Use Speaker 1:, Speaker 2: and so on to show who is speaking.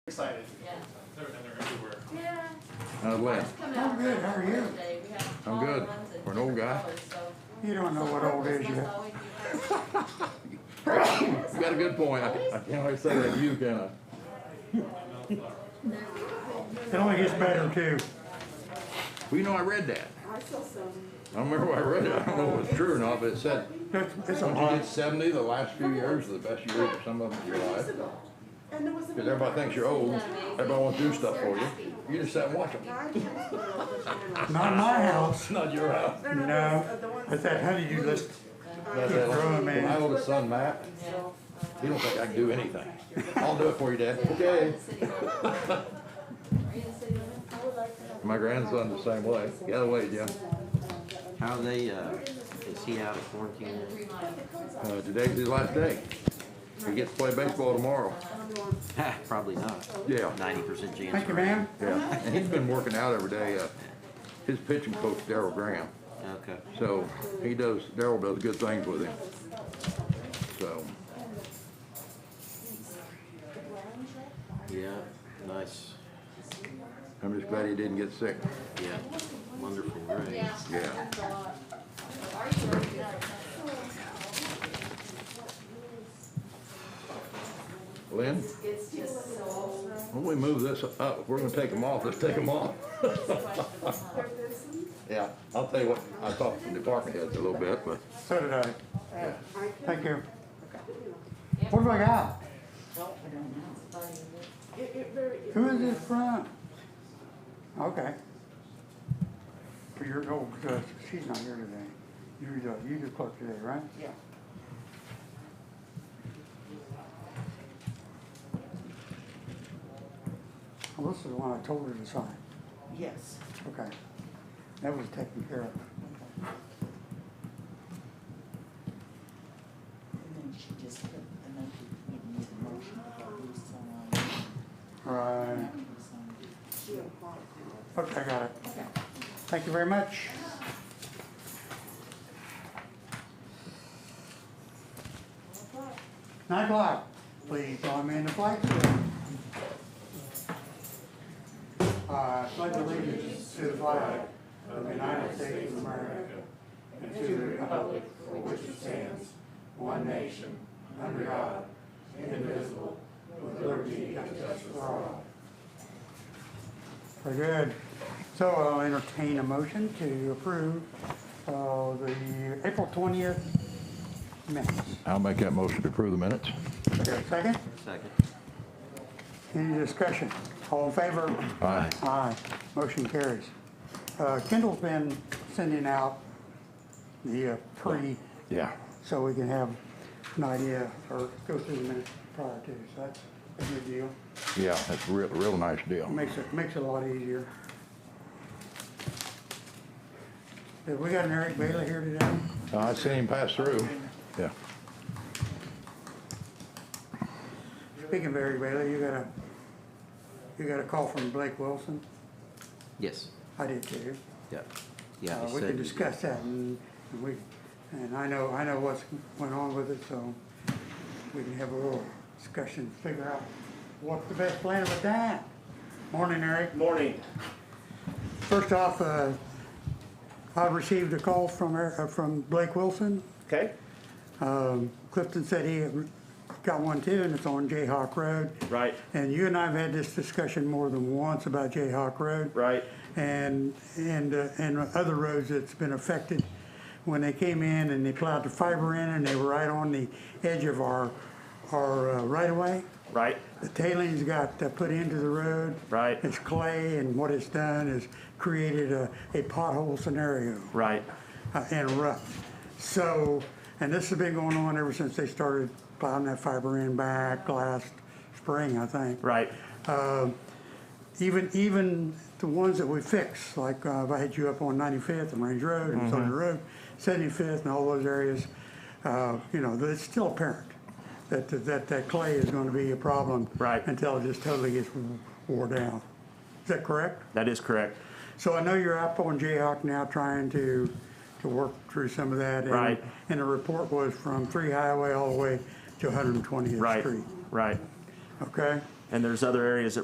Speaker 1: Excited.
Speaker 2: Yeah.
Speaker 3: They're, and they're everywhere.
Speaker 2: Yeah.
Speaker 4: How's Lynn?
Speaker 2: Just come
Speaker 5: I'm
Speaker 2: out
Speaker 5: good,
Speaker 2: early
Speaker 5: how are you?
Speaker 2: today. We have
Speaker 4: I'm
Speaker 2: all the
Speaker 4: good.
Speaker 2: ones in
Speaker 4: For an old
Speaker 2: different
Speaker 4: guy.
Speaker 2: colors, so-
Speaker 5: You don't know what old is
Speaker 2: Must
Speaker 5: yet.
Speaker 2: always be
Speaker 4: You got a good point. I, I can't always say that to you, can I?
Speaker 5: It only gets better too.
Speaker 4: Well, you know, I read that.
Speaker 6: I saw some.
Speaker 4: I remember where I read it. I don't know if it's true or not, but it said,
Speaker 5: It's, it's a
Speaker 4: once you
Speaker 5: lot.
Speaker 4: get seventy, the last few years are the best years of some of them in your
Speaker 6: years
Speaker 4: life.
Speaker 6: ago. And there was.
Speaker 4: Because everybody thinks you're old. Everybody wants to do stuff for you. You just sit and watch them.
Speaker 6: Nine years ago, but they're not.
Speaker 5: Not my house.
Speaker 4: Not your house.
Speaker 6: They're not
Speaker 5: No,
Speaker 6: those- uh, the ones
Speaker 5: it's that
Speaker 6: that-
Speaker 5: honeydew list.
Speaker 4: That's
Speaker 5: Good
Speaker 4: it.
Speaker 5: growing man.
Speaker 4: My oldest son, Matt,
Speaker 2: Yeah.
Speaker 4: he don't think I can do anything. I'll do it for you, Dad.
Speaker 2: Are
Speaker 4: Okay.
Speaker 2: you in the city limits?
Speaker 6: I would like to have-
Speaker 4: My grandson the same way. Got away, Jim.
Speaker 7: How are they, uh, is he out of quarantine?
Speaker 2: And the three
Speaker 7: yet?
Speaker 2: miles.
Speaker 4: Uh, today's his last day. He gets to play baseball tomorrow.
Speaker 7: Ha, Probably not.
Speaker 4: Yeah.
Speaker 7: Ninety percent chance.
Speaker 5: Thank you,
Speaker 7: right?
Speaker 5: ma'am.
Speaker 4: Yeah, and he's been working out every day. Uh, his pitching coach, Daryl Graham.
Speaker 7: Okay.
Speaker 4: So he does, Daryl does good things with him. So,
Speaker 7: Yeah, nice.
Speaker 4: I'm just glad he didn't get sick.
Speaker 7: Yeah, wonderful, right?
Speaker 2: Yeah.
Speaker 4: Yeah.
Speaker 2: That's a lot. Are you working out of
Speaker 4: Lynn,
Speaker 2: town? It's just so
Speaker 4: when we move this up, if we're gonna take them off, let's take them off.
Speaker 2: questionable. huh?
Speaker 4: Yeah, I'll tell you what, I talked to the department heads a little bit, but
Speaker 5: So did I. Thank you.
Speaker 2: Yeah.
Speaker 5: What do I got?
Speaker 6: It, it very. it
Speaker 5: Who is
Speaker 6: really
Speaker 5: this from? Okay. For your, oh, uh, she's not here today. uh, You're the, you're the clerk today, right?
Speaker 6: Yeah.
Speaker 5: Well, this is the one I told her to sign.
Speaker 6: Yes.
Speaker 5: Okay. That was taken care of.
Speaker 8: And then she just put a note that you need a motion to lose someone.
Speaker 5: Right. Okay, I got it. Thank you very much. Nine o'clock, please join me in the flag salute. I Uh, pledge allegiance to the flag of the United States of America and to the republic for which it stands, one nation, under God, indivisible, with liberty and justice for all. Very good. So I'll entertain a motion to approve uh, the April 20th minutes.
Speaker 4: I'll make that motion to approve the minutes.
Speaker 5: Is there a Second?
Speaker 7: Second.
Speaker 5: Any discussion? All in favor?
Speaker 4: Aye.
Speaker 5: Aye. Motion carries. Uh, Kendall's been sending out the uh, pre,
Speaker 4: Yeah.
Speaker 5: so we can have an idea or go through the minutes prior to. So that's a good deal.
Speaker 4: Yeah, that's a real, real nice deal.
Speaker 5: Makes it, makes it a lot easier. Have we got an Eric Bailey here today?
Speaker 4: Uh, I seen him pass through. Yeah.
Speaker 5: Speaking of Eric Bailey, you got a, you got a call from Blake Wilson?
Speaker 7: Yes,
Speaker 5: I did too.
Speaker 7: yeah. Yeah,
Speaker 5: Uh,
Speaker 7: he
Speaker 5: We
Speaker 7: said-
Speaker 5: can discuss that and and we, and I know, I know what's went on with it, so we can have a little discussion, figure out what's the best plan with that. Morning, Eric.
Speaker 1: Morning.
Speaker 5: First off, uh, I received a call from, Eric- uh, from Blake Wilson.
Speaker 1: Okay.
Speaker 5: Um, Clifton said he got one too, and it's on Jayhawk Road.
Speaker 1: Right.
Speaker 5: And you and I have had this discussion more than once about Jayhawk Road.
Speaker 1: Right.
Speaker 5: And, and, uh, and other roads that's been affected. When they came in and they plowed the fiber in and they were right on the edge of our, our uh, right of way.
Speaker 1: Right.
Speaker 5: The tailings got uh, put into the road.
Speaker 1: Right.
Speaker 5: It's clay and what it's done is created a, a pothole scenario
Speaker 1: Right.
Speaker 5: uh, and rough. So, and this has been going on ever since they started plowing that fiber in back last spring, I think.
Speaker 1: Right.
Speaker 5: Even, even the ones that we fixed, like uh, if I had you up on 95th and Range Road and
Speaker 1: Mm-hmm.
Speaker 5: Southern Road, 75th and all those areas, uh, you know, that it's still apparent that, that, that clay is gonna be a problem.
Speaker 1: Right.
Speaker 5: Until it just totally gets wore down. Is that correct?
Speaker 1: That is correct.
Speaker 5: So I know you're up on Jayhawk now trying to, to work through some of that. and-
Speaker 1: Right.
Speaker 5: And the report was from Three Highway all the way to 120th
Speaker 1: Right.
Speaker 5: Street.
Speaker 1: Right.
Speaker 5: Okay?
Speaker 1: And there's other areas that